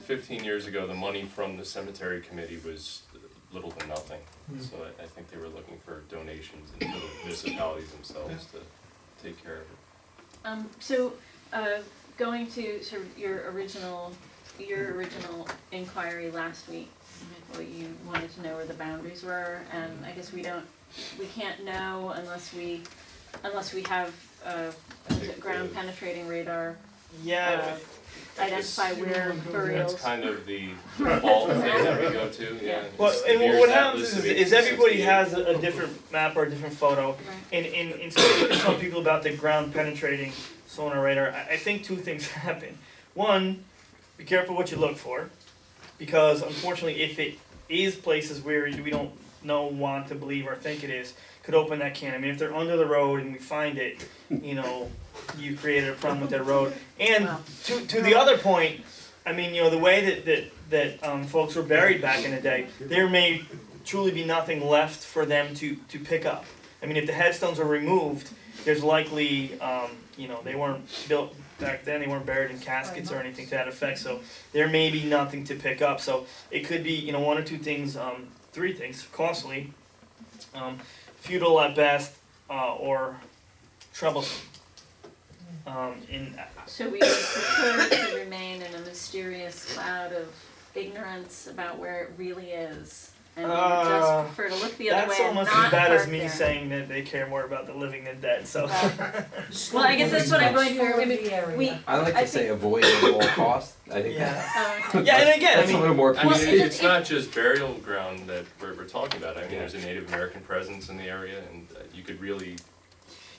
fifteen years ago, the money from the cemetery committee was little to nothing. Hmm. So I, I think they were looking for donations and little municipalities themselves to take care of it. Um, so, uh, going to sort of your original, your original inquiry last week, well, you wanted to know where the boundaries were, and I guess we don't, we can't know unless we, unless we have, uh, what is it, ground penetrating radar, Yeah, uh, identify where That's burials. kind of the default thing that we go to, yeah. Yeah. well, It's the and what- Beers what happens Atlas is, of is everybody 1868. has a, a different map or a different photo, Right. and, and, and speaking to some people about the ground penetrating sonar radar, I, I think two things happen. One, be careful what you look for, because unfortunately, if it is places where we don't know, want to believe, or think it is, could open that can. I mean, if they're under the road and we find it, you know, you created a problem with that road. And Wow. to, to the other point, I mean, you know, the way that, that, that um, folks were buried back in the day, there may truly be nothing left for them to, to pick up. I mean, if the headstones are removed, there's likely, um, you know, they weren't built back then, they weren't buried in caskets or anything to that effect, so there may be nothing to pick up. So it could be, you know, one or two things, um, three things, costly, um, futile at best, uh, or troublesome. Um, and So we would prefer to remain in a mysterious cloud of ignorance about where it really is. And we would Uh, just prefer to look the other way that's and not almost park as bad as there. me saying that they care more about the living than dead. So Well, I guess that's what I'm going for, I mean, we, I like I to say avoid at all costs. I think yeah, uh, yeah, and again, I that's a mean, little more I mean, Well, consistent. it- it's it- not just burial ground that we're, we're talking about, I mean, Yeah. there's a Native American presence in the area and uh, you could really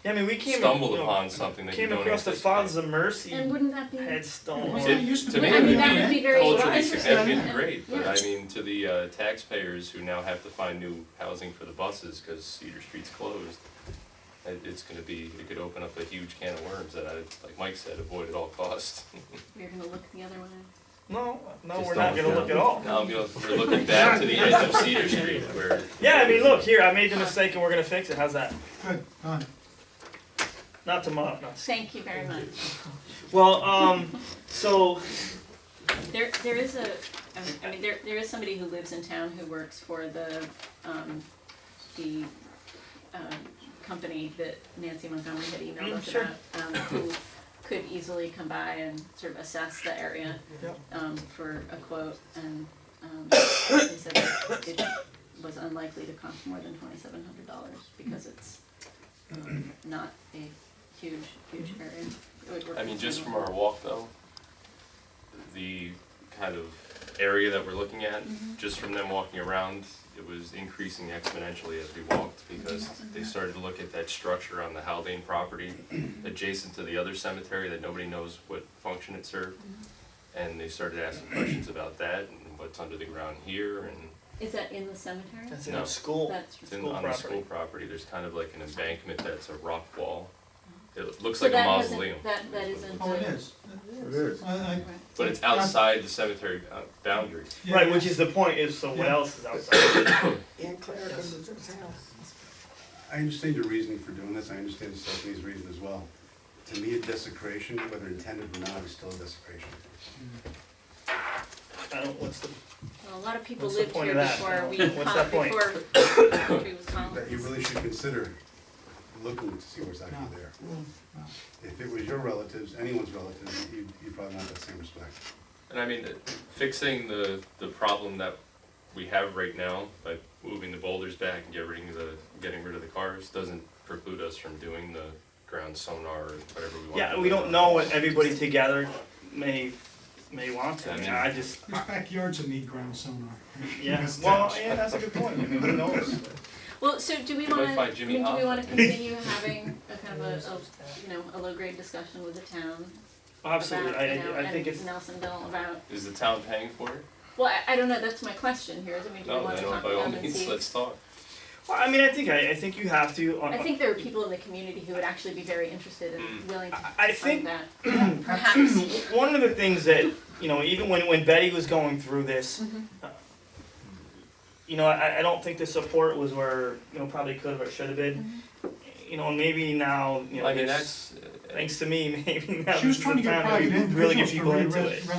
yeah, I mean, we came stumble you know, upon something that you came don't across the anticipate. Fonz of and Mercy wouldn't that be, I headstone. Was on- it- To me, mean, it would that be would be very culturally interesting. significant and Yeah. great, but Yeah. I mean, to the uh, taxpayers who now have to find new housing for the buses because Cedar Street's closed, it, it's gonna be, it could open up a huge can of worms that I, like Mike said, avoid at all costs. We're gonna look the other way. No, no, Just we're don't not gonna go. look at all. Now, I'm gonna, we're looking back to the edge of Cedar Street where. Yeah, I mean, look here, I made the mistake and we're gonna fix it. How's that? Good, done. Not tomorrow. No. Thank you very much. Well, um, so There, there is a, um, I- I mean, there, there is somebody who lives in town who works for the, um, the, um, company that Nancy Montgomery had emailed Mm, us sure. about, um, who could easily come by and sort of assess the area, Yep. um, for a quote, and, um, they said that it was unlikely to cost more than twenty-seven hundred dollars, because it's, um, not a huge, huge area. It would work I mean, with just from someone. our walk though, the kind of area that we're looking at, Mm-hmm. just from them walking around, it was increasing exponentially as we walked because they started to look at that structure on the Haldane property adjacent to the other cemetery that nobody knows what function it served. Mm-hmm. And they started asking questions about that and what's under the ground here and Is that in the cemetery? that's in No. a school. That's it's in, School on the property. school property, there's kind of like an embankment that's a rock wall. Mm-hmm. It looks So like a that hasn't- mausoleum, That, that isn't. uh, Oh, it is. It is. I, I, Right. but it's outside the cemetery uh, boundaries. yeah, Right, yeah. which is the point. Is so what else is outside? And Claire comes to this house. I understand your reasoning for doing this, I understand Stephanie's reason as well. To me, a desecration, whether intended or not, is still a desecration. I don't. What's the Well, a lot of people What's the lived point here of that? before we, What's con- that point? before the country was That you colonized. really should consider looking to see what's actually there. If it was your relatives, anyone's relatives, you'd, you'd probably not have that same respect. And I mean, uh, fixing the, the problem that we have right now by moving the boulders back and get rid of the, getting rid of the cars doesn't preclude us from doing the ground sonar or whatever we want. Yeah, to we do. don't know what everybody together may may want to. I, mean, I just These backyards that need ground sonar. yeah. Missed Well, touch. yeah, that's a good point. I mean, who knows? Well, so do we might wanna, I find Jimmy mean, do we Hoffa. wanna continue having a kind of a, a, you know, a low grade discussion with the town Absolutely. about, I, you know, I, I think it's and Nelsonville about, Is the town paying for it? well, I, I don't know, that's my question here, is, I mean, do we No, wanna then talk by to all them and means, see? let's talk. Well, I mean, I think I, I think you have to. on- I think there are people in the community who would actually be very interested Mm. and willing to I- I fund think that, perhaps, one of the things that you know, even when when Betty was going through this, Mm-hmm. uh, you know, I, I don't think the support was where you know probably could have or should have been. Mm-hmm. You know, and maybe now you know. I mean, there's- that's, uh, thanks to me, maybe now She this was is trying the to get time private really get individuals to people into re- it. res-